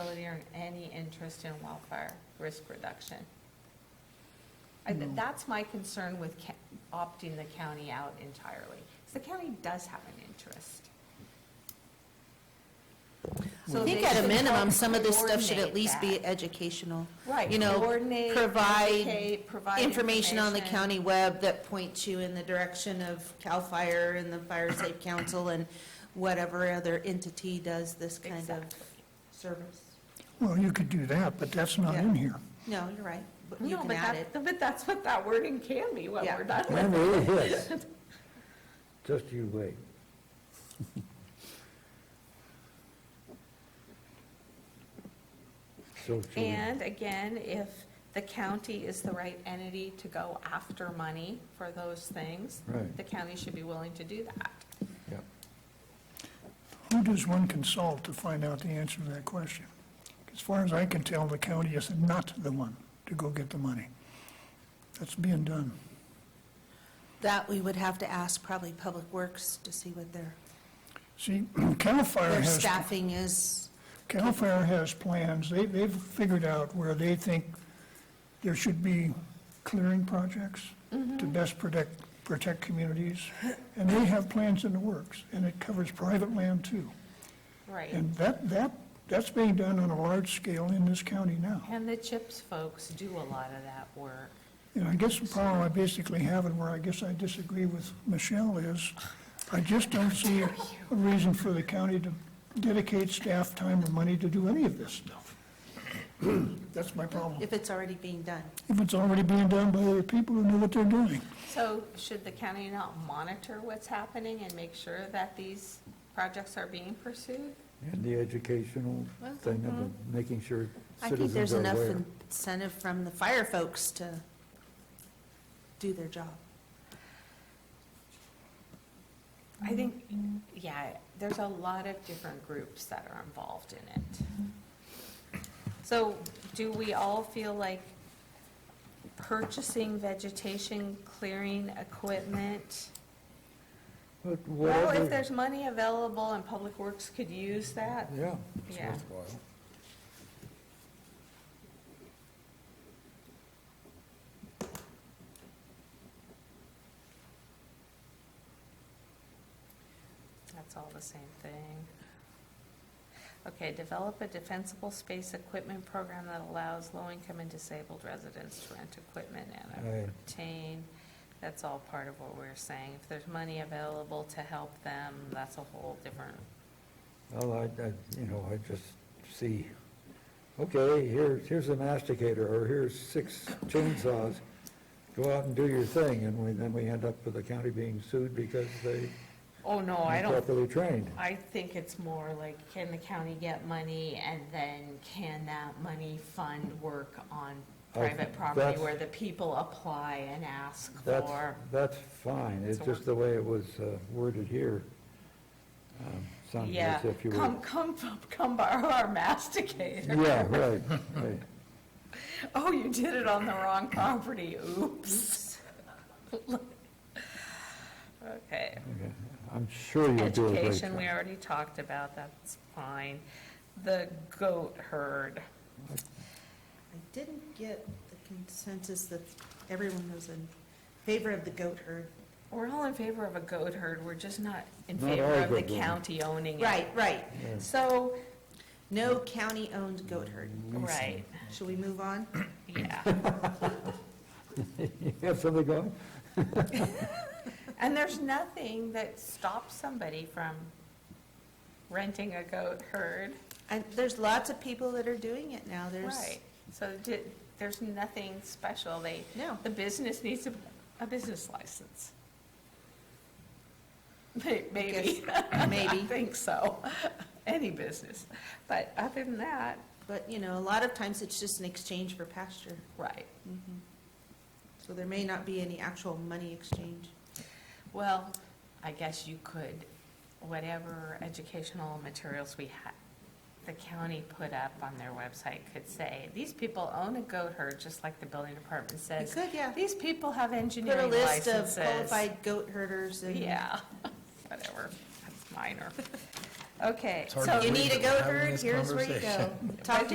sharing any interest in wildfire risk reduction. I, th- that's my concern with ca- opting the county out entirely, 'cause the county does have an interest. So I think they at a should minimum, help some of this stuff should coordinate at least that. be educational. Right, You know, coordinate, provide educate, provide information on the information. county web that points you in the direction of CAL FIRE and the Fire Safe Council and whatever other entity does this kind of Exactly. service. Well, you could do that, but that's not in here. No, you're right, but you No, can but add that, it. but that's what that wording can be when Yeah. we're done That with it. really is. Just you wait. So should we- And again, if the county is the right entity to go after money for those things, Right. the county should be willing to do that. yeah. Who does one consult to find out the answer to that question? As far as I can tell, the county is not the one to go get the money. That's being done. That we would have to ask probably Public Works to see what their, See, CAL FIRE their has, staffing is. CAL FIRE has plans, they, they've figured out where they think there should be clearing projects to best protect, protect communities, and they have plans in the works, and it covers private land too. Right. And that, that, that's being done on a large scale in this county now. And the CHIPS folks do a lot of that work. And I guess the problem I basically have, and where I guess I disagree with Michelle, is I just don't see a reason for the county to dedicate staff time or money to do any of this stuff. That's my problem. If it's already being done. If it's already being done by other people who know what they're doing. So should the county not monitor what's happening and make sure that these projects are being pursued? And the educational thing of making sure I think citizens there's are enough aware. incentive from the fire folks to do their job. I think, yeah, there's a lot of different groups that are involved in it. So do we all feel like purchasing vegetation clearing equipment? But Well, whatever- if there's money available and Public Works could use that, Yeah. it's Yeah. worthwhile. that's all the same thing. Okay, develop a defensible space equipment program that allows low-income and disabled residents to rent equipment and Aye. obtain. That's all part of what we're saying. If there's money available to help them, that's a whole different Well, I, I, you know, I just see, okay, here's, here's a masticator, or here's six chainsaws, go out and do your thing, and we, then we end up with the county being sued because they Oh, no, I don't, improperly trained. I think it's more like, can the county get money, and then can that money fund work on I- private property that's- where the people apply and ask That's, for? that's fine, it's So just the way it was uh, worded here. um, Sounds Yeah, as if you come, were. come, come borrow our masticator. Yeah, right, right. Oh, you did it on the wrong property, oops. Okay. okay. I'm sure you'll do a great Education, job. we already talked about, that's fine. The goat herd. I didn't get the consensus that everyone was in favor of the goat herd. We're all in favor of a goat herd, we're just not in Not favor all of the goat herd. county owning it. Right, right. So, No county-owned goat herd. right, Should we move on? yeah. You have something going? And there's nothing that stops somebody from renting a goat herd. And there's lots of people that are doing it now. There's, Right, so di- there's nothing special, they, No. the business needs a, a business license. May- Maybe, I maybe, think so, any business, but other than that, but, you know, a lot of times it's just an exchange for pasture. right. So there may not be any actual money exchange. Well, I guess you could, whatever educational materials we had, the county put up on their website could say, these people own a goat herd, just like the building department You says. could, yeah. These people have Put a engineering list of licenses. qualified goat herders and. Yeah, whatever, that's minor. Okay, It's hard so. to You believe need a that we're goat having herd, this here's where you go. conversation. Talk to